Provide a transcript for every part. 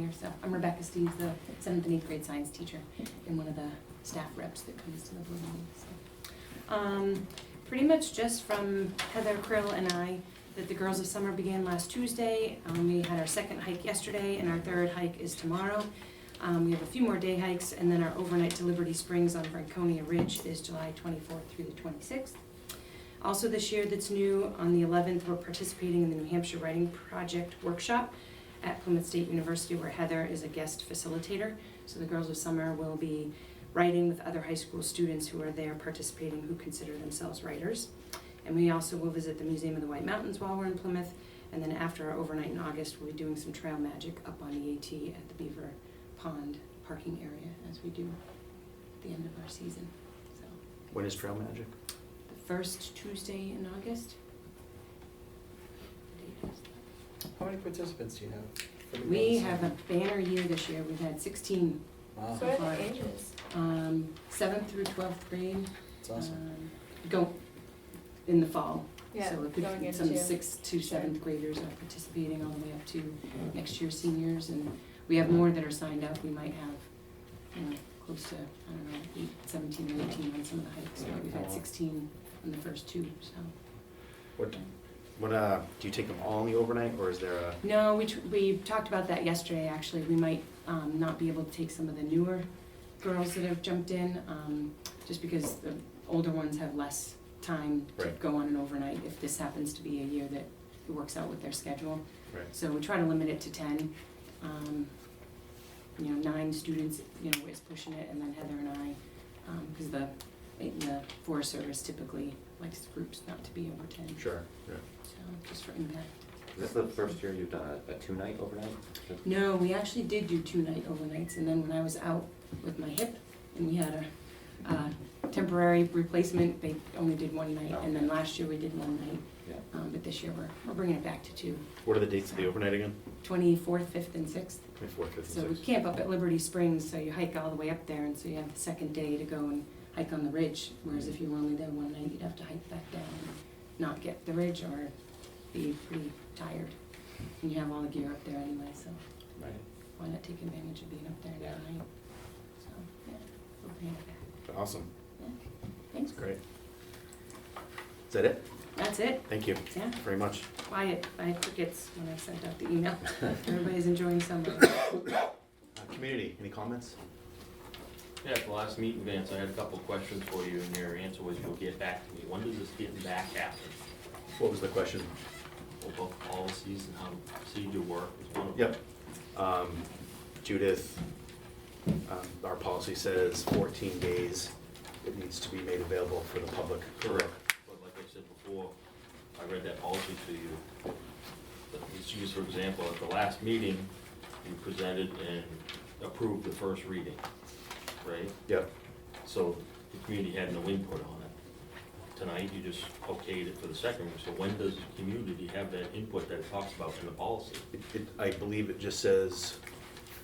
here. So I'm Rebecca Steves, the seventh and eighth grade science teacher and one of the staff reps that comes to the board meetings. So, Um, pretty much just from Heather Krill and I, that the Girls of Summer began last Tuesday. Um, we had our second hike yesterday and our third hike is tomorrow. Um, we have a few more day hikes and then our overnight to Liberty Springs on Franconia Ridge is July twenty-fourth through the twenty-sixth. Also this year that's new, on the 11th, we're participating in the New Hampshire Writing Project Workshop at Plymouth State University where Heather is a guest facilitator. So the Girls of Summer will be writing with other high school students who are there participating who consider themselves writers. And we also will visit the Museum of the White Mountains while we're in Plymouth. And then after our overnight in August, we'll be doing some trail magic up on EAT at the Beaver Pond parking area as we do at the end of our season. So When is Trail Magic? the first Tuesday in August. How many participants do you have? We have a banner year this year, we've had sixteen, Wow, So what are the ages? um, seventh through twelfth grade, it's awesome. um, go in the fall. Yeah, So it could- going some into- sixth to Sure. seventh graders are participating all the way up to next year's seniors, and we have more that are signed up, we might have, you know, close to, I don't know, eight, seventeen or eighteen on some of the hikes, but we've had sixteen on the first two, so. What, what, uh, do you take them all in the overnight or is there a, No, we, tr- we talked about that yesterday, actually. We might um, not be able to take some of the newer girls that have jumped in, um, just because the older ones have less time to Right. go on an overnight if this happens to be a year that it works out with their schedule. Right. So we try to limit it to ten. Um, You know, nine students, you know, is pushing it, and then Heather and I, because the, the Forest Service typically likes groups not to be over ten, sure, yeah. so just for impact. Is this the first year you've done a, a two-night overnight? No, we actually did do two night overnights, and then when I was out with my hip, and we had a, uh temporary replacement, they only did one night, and then last year we did one night. Yeah. Um, but this year we're, we're bringing it back to two, What are the dates of the overnight again? twenty-fourth, fifth, and sixth. Twenty-fourth, fifth, So and we sixth? camp up at Liberty Springs, so you hike all the way up there, and so you have the second day to go and hike on the ridge, whereas if you were only there one night, you'd have to hike back down and not get the ridge or be pretty tired. And you have all the gear up there anyway, so. Right. why not take advantage of being up there Yeah. tonight? So, yeah, we'll bring it back. Awesome, Thanks. that's great. Is that it? That's it, Thank you yeah, very much. quiet, I had crickets when I sent out the email. Everybody's enjoying summer. Uh, Community, any comments? Yeah, at the last meeting, Vance, I had a couple of questions for you, and your answer was you'll get back to me. When does this getting back happen? What was the question? Well, both policies and how procedure work is one of them. Yep. Um, Judith, um, our policy says fourteen days it needs to be made available for the public. But like I said before, I read that policy to you. But Let's use, for example, at the last meeting, you presented and approved the first reading, right? Yep, So the community had no input on it. Tonight, you just okayed it for the second one, so when does the community have that input that it talks about in the policy? It- it- I believe it just says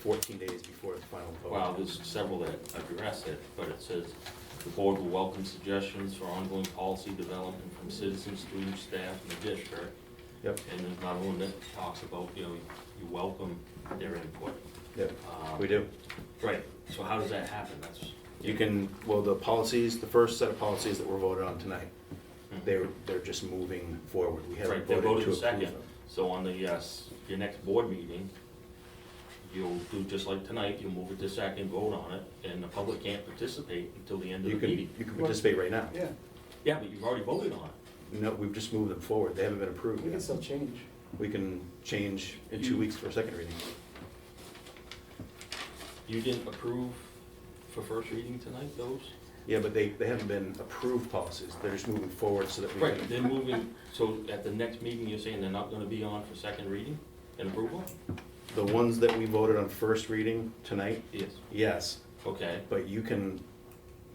14 days before the final vote. Well, there's several that address it, but it says, "The board will welcome suggestions for ongoing policy development from citizens, students, staff, and the district." Yep, And there's not one that talks about, you know, you welcome their input. yep, Um, we do. Right, so how does that happen? That's, You can, well, the policies, the first set of policies that were voted on tonight, they're, they're just moving forward. We haven't Hmm. right, they voted voted to the approve second, them. so on the, yes, your next board meeting, you'll do just like tonight, you'll move it to second, vote on it, and the public can't participate until the end of You the can, meeting. you can participate right now. Yeah, Yeah, but you've already voted on it. No, we've just moved them forward, they haven't been approved we can yet. still change. We can change in two You- weeks for a second reading. You didn't approve for first reading tonight, those? Yeah, but they, they haven't been approved policies, they're just moving forward so that we Right, can. they're moving, so at the next meeting, you're saying they're not gonna be on for second reading and approval? The ones that we voted on first reading tonight, Yes. yes, Okay, But you can,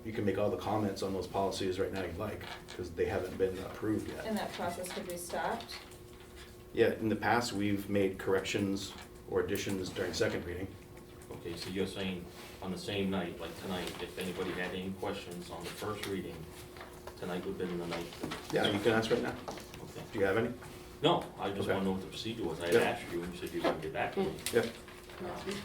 you can make all the comments on those policies right now you'd like, because they haven't been approved yet. And that process could be stopped? Yeah, in the past, we've made corrections or additions during second reading. okay, so you're saying on the same night, like tonight, if anybody had any questions on the first reading, tonight would've been the night. Yeah, you can ask right now. Okay. Do you have any? No, I just Okay. wanna know what the procedure was. I had Yep. Mm. asked you, and you said you wouldn't get back to me. Yep. Um,